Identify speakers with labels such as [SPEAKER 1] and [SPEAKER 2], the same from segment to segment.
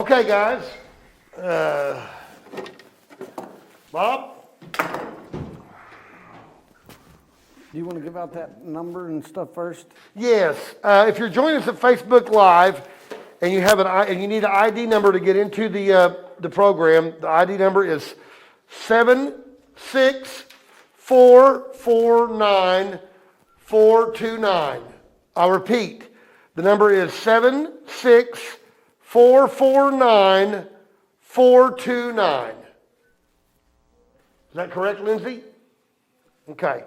[SPEAKER 1] Okay, guys. Uh, Bob?
[SPEAKER 2] Do you want to give out that number and stuff first?
[SPEAKER 1] Yes, uh, if you're joining us at Facebook Live and you have an, I- and you need an ID number to get into the, uh, the program, the ID number is seven six four four nine four two nine. I'll repeat, the number is seven six four four nine four two nine. Is that correct, Lindsay? Okay.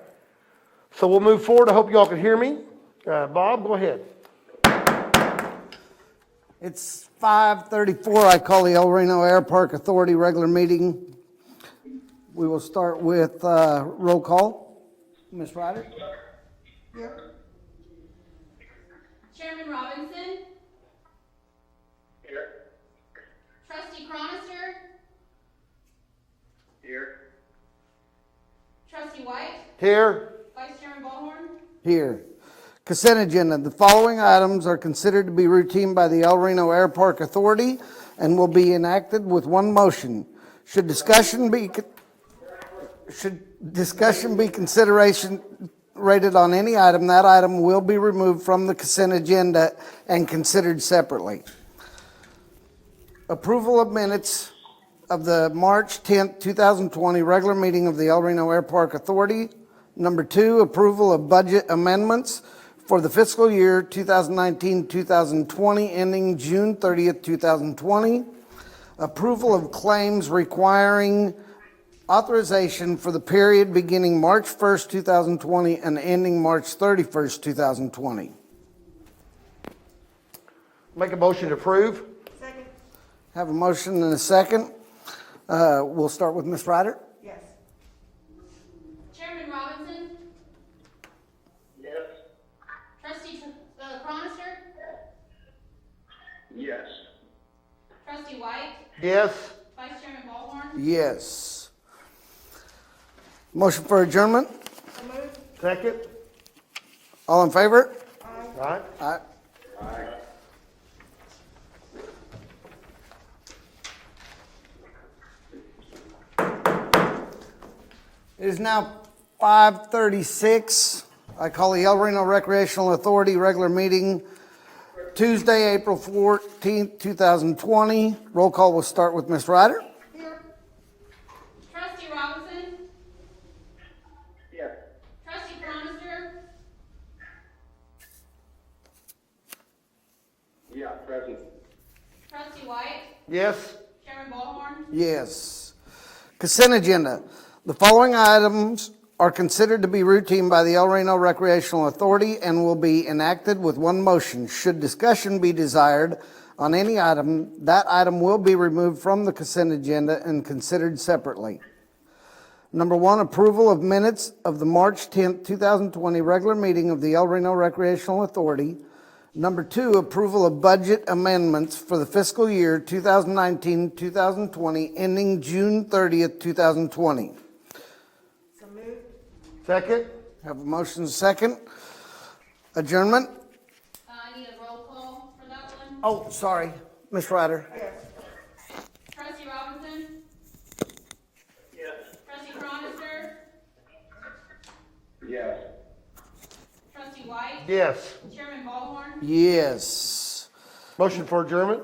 [SPEAKER 1] So we'll move forward. I hope y'all can hear me. Uh, Bob, go ahead.
[SPEAKER 2] It's 5:34. I call the El Reno Air Park Authority regular meeting. We will start with uh, roll call. Ms. Ryder?
[SPEAKER 3] Chairman Robinson?
[SPEAKER 4] Here.
[SPEAKER 3] Trustee Cronister?
[SPEAKER 4] Here.
[SPEAKER 3] Trustee White?
[SPEAKER 1] Here,
[SPEAKER 3] Vice Chairman Ballhorn?
[SPEAKER 2] Here. Consent agenda. The following items are considered to be routine by the El Reno Air Park Authority and will be enacted with one motion. Should discussion be, con- should discussion be consideration rated on any item, that item will be removed from the consent agenda and considered separately. Approval of minutes of the March 10th, 2020 regular meeting of the El Reno Air Park Authority. Number two, approval of budget amendments for the fiscal year 2019-2020 ending June 30th, 2020. Approval of claims requiring authorization for the period beginning March 1st, 2020 and ending March 31st, 2020.
[SPEAKER 1] make a motion to approve.
[SPEAKER 5] Second,
[SPEAKER 2] Have a motion and a second. Uh, We'll start with Ms. Ryder.
[SPEAKER 5] yes.
[SPEAKER 3] Chairman Robinson?
[SPEAKER 4] Yes.
[SPEAKER 3] Trustee Tr- uh, Cronister?
[SPEAKER 4] Yes.
[SPEAKER 3] Trustee White?
[SPEAKER 1] Yes,
[SPEAKER 3] Vice Chairman Ballhorn?
[SPEAKER 2] Yes. Motion for adjournment.
[SPEAKER 5] So moved,
[SPEAKER 1] second.
[SPEAKER 2] All in favor?
[SPEAKER 5] aye.
[SPEAKER 1] All right.
[SPEAKER 2] Aye. It is now 5:36. I call the El Reno Recreational Authority regular meeting Tuesday, April 14th, 2020. Roll call will start with Ms. Ryder.
[SPEAKER 5] Here,
[SPEAKER 3] Trustee Robinson?
[SPEAKER 4] Yes.
[SPEAKER 3] Trustee Cronister?
[SPEAKER 4] Yeah, present.
[SPEAKER 3] Trustee White?
[SPEAKER 1] Yes,
[SPEAKER 3] Chairman Ballhorn?
[SPEAKER 2] Yes. Consent agenda. The following items are considered to be routine by the El Reno Recreational Authority and will be enacted with one motion. Should discussion be desired on any item, that item will be removed from the consent agenda and considered separately. Number one, approval of minutes of the March 10th, 2020 regular meeting of the El Reno Recreational Authority. Number two, approval of budget amendments for the fiscal year 2019-2020 ending June 30th, 2020.
[SPEAKER 5] so moved,
[SPEAKER 1] second.
[SPEAKER 2] Have a motion second. Adjournment?
[SPEAKER 3] Uh, I need a roll call for that one.
[SPEAKER 2] Oh, sorry, Ms. Ryder.
[SPEAKER 5] yes.
[SPEAKER 3] Trustee Robinson?
[SPEAKER 4] Yes.
[SPEAKER 3] Trustee Cronister?
[SPEAKER 4] Yes.
[SPEAKER 3] Trustee White?
[SPEAKER 1] Yes.
[SPEAKER 3] Chairman Ballhorn?
[SPEAKER 2] Yes.
[SPEAKER 1] Motion for adjournment.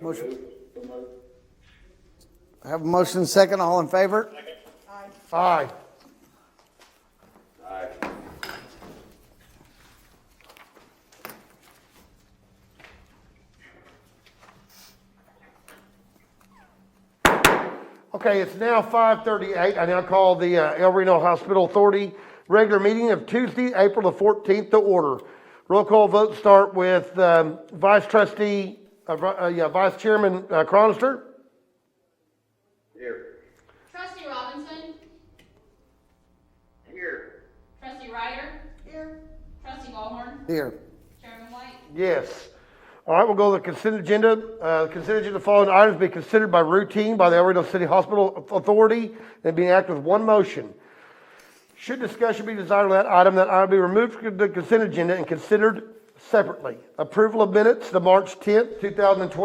[SPEAKER 2] Motion.
[SPEAKER 4] Move. So moved.
[SPEAKER 2] Have a motion second, all in favor?
[SPEAKER 1] Aye.
[SPEAKER 4] Aye.
[SPEAKER 1] Okay, it's now 5:38. I now call the uh, El Reno Hospital Authority regular meeting of Tuesday, April the 14th to order. Roll call votes start with um, Vice Trustee, uh, Vi- uh, yeah, Vice Chairman uh, Cronister.
[SPEAKER 4] Here.
[SPEAKER 3] Trustee Robinson?
[SPEAKER 4] Here.
[SPEAKER 3] Trustee Ryder?
[SPEAKER 5] Here,
[SPEAKER 3] Trustee Ballhorn?
[SPEAKER 2] Here.
[SPEAKER 3] Chairman White?
[SPEAKER 1] Yes. All right, we'll go to the consent agenda. Uh, Consent agenda, the following items be considered by routine by the El Reno City Hospital Authority and be acted with one motion. Should discussion be desired on that item, that item be removed from the consent agenda and considered separately. Approval of minutes, the March 10th, 2020